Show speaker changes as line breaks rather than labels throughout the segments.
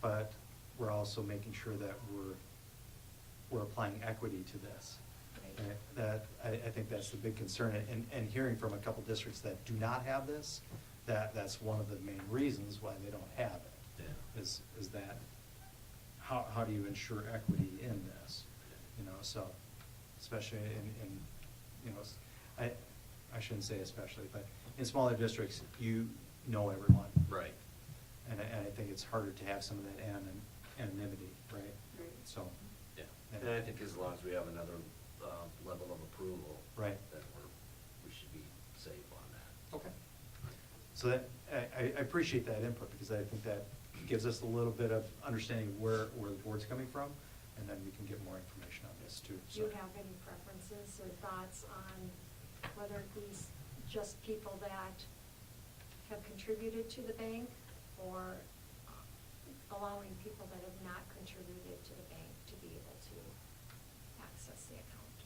but we're also making sure that we're, we're applying equity to this.
Right.
And That, I, I think that's the big concern, and, and hearing from a couple districts that do not have this, that, that's one of the main reasons why they don't have it.
Yeah.
Is is that, how, how do you ensure equity in this? You know, so, especially in, in, you know, s- I, I shouldn't say especially, but in smaller districts, you know everyone.
Right.
And I, and I think it's harder to have some of that anon- anonymity, right?
Right.
So,
Yeah,
Yeah.
and I think as long as we have another um, level of approval.
Right.
Then we're, we should be safe on that.
okay. So that, I, I- I appreciate that input, because I think that gives us a little bit of understanding of where, where the board's coming from, and then we can get more information on this too,
Do
so.
you have any preferences or thoughts on whether these just people that have contributed to the bank or allowing people that have not contributed to the bank to be able to access the account?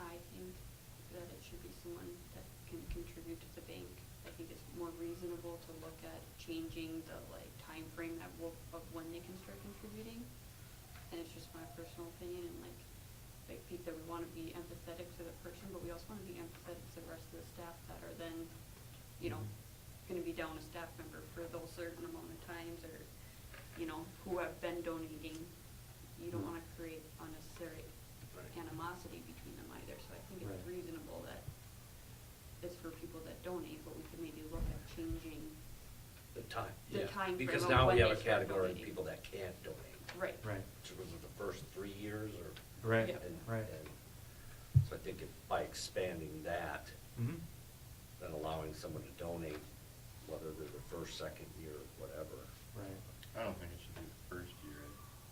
I think that it should be someone that can contribute to the bank. I think it's more reasonable to look at changing the like timeframe that will, of when they can start contributing. And it's just my personal opinion and like, I think that we wanna be empathetic to the person, but we also wanna be empathetic to the rest of the staff that are then, you know, gonna be down a staff member for those certain amount of times or, you know, who have been donating. You don't wanna create unnecessary
Right.
animosity between them either, so I think it's
Right.
reasonable that it's for people that donate, but we could maybe look at changing,
The time.
The
yeah.
timeframe
Because
of
now
when
we have a
they start
category of
donating.
people that can't donate.
right.
Right,
Which was the first three years or.
Right,
Yep.
and-
right.
and So I think if by expanding that,
mm-hmm,
then allowing someone to donate, whether they're the first, second year, whatever.
right,
I don't think it should be the first year,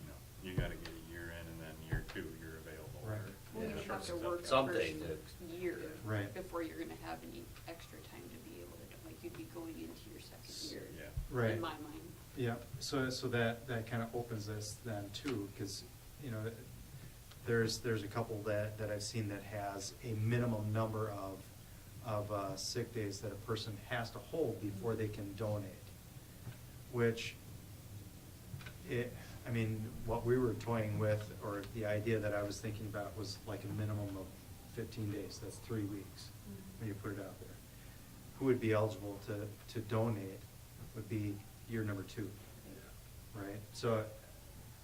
you know, you gotta get a year in and then year two, you're available. or-
Right.
Well, you
Yeah.
have to work the
Something
first
to-
year
Right.
before you're gonna have any extra time to be able to, do- like, you'd be going into your second year.
Yeah.
right.
In my mind.
Yeah, so, so that, that kind of opens this then too, because, you know, there's, there's a couple that, that I've seen that has a minimum number of, of uh, sick days that a person has to hold before they can donate. Which, it, I mean, what we were toying with, or the idea that I was thinking about was like a minimum of fifteen days, that's three weeks, when you put it out there. Who would be eligible to, to donate would be year number two, right? So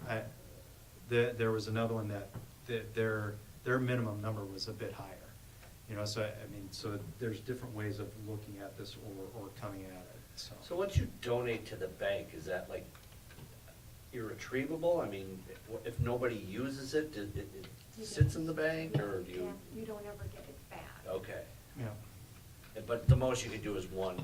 I, there, there was another one that, that their, their minimum number was a bit higher. You know, so I, I mean, so there's different ways of looking at this or, or coming at it, so.
So once you donate to the bank, is that like irretrievable? I mean, if- if nobody uses it, it, it-
You
it sits
don't-
in the bank
yeah,
or do you?
can't- You don't ever get it back.
Okay,
Yeah,
but the most you could do is one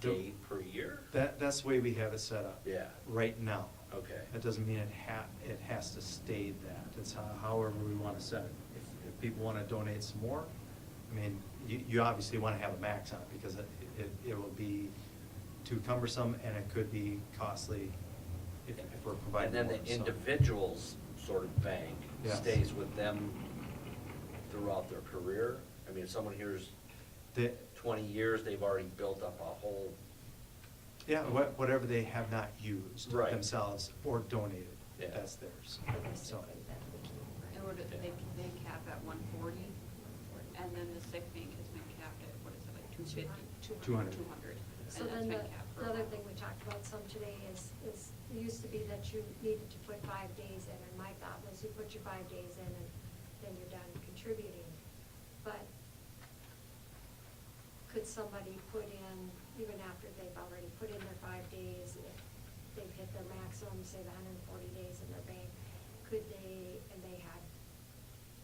Do-
day per year?
that, that's the way we have it set up.
Yeah.
Right now.
Okay.
That doesn't mean it ha, it has to stay that, it's ho- however we wanna set it. If, if people wanna donate some more, I mean, you, you obviously wanna have a max on it, because it, it, it will be too cumbersome, and it could be costly if, if we're providing
And
more.
then the
so-
individual's sort of bank
Yes.
stays with them throughout their career? I mean, if someone here's
The,
twenty years, they've already built up a whole,
yeah, wha- whatever they have not used
Right.
themselves or donated,
Yeah.
that's theirs, so.
Basically, that's the key, right?
And what, if they, they cap at one forty, and then the sick bank has been capped at, what is it, like two fifty?
200.
Two hundred,
So
and that's
then the,
been capped for a
the other
while.
thing we talked about some today is, is, it used to be that you needed to put five days in, and my thought was you put your five days in and then you're done contributing. But could somebody put in, even after they've already put in their five days, if they've hit their maximum, say the hundred and forty days in their bank, could they, and they had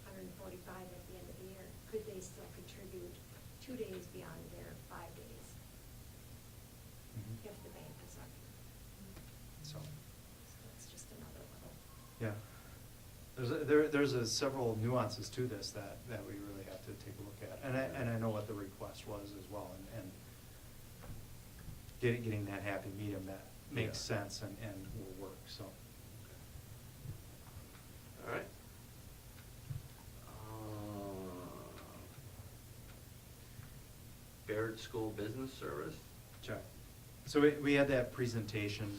hundred and forty-five at the end of the year, could they still contribute two days beyond their five days?
Mhm.
if the bank is up.
So,
So it's just another level.
yeah. There's, a- there, there's a several nuances to this that, that we really have to take a look at, and I, and I know what the request was as well, and, and getting, getting that happy medium that makes
Yeah.
sense and, and will work, so.
all right? Uh, Baird School Business Service?
Check. So we, we had that presentation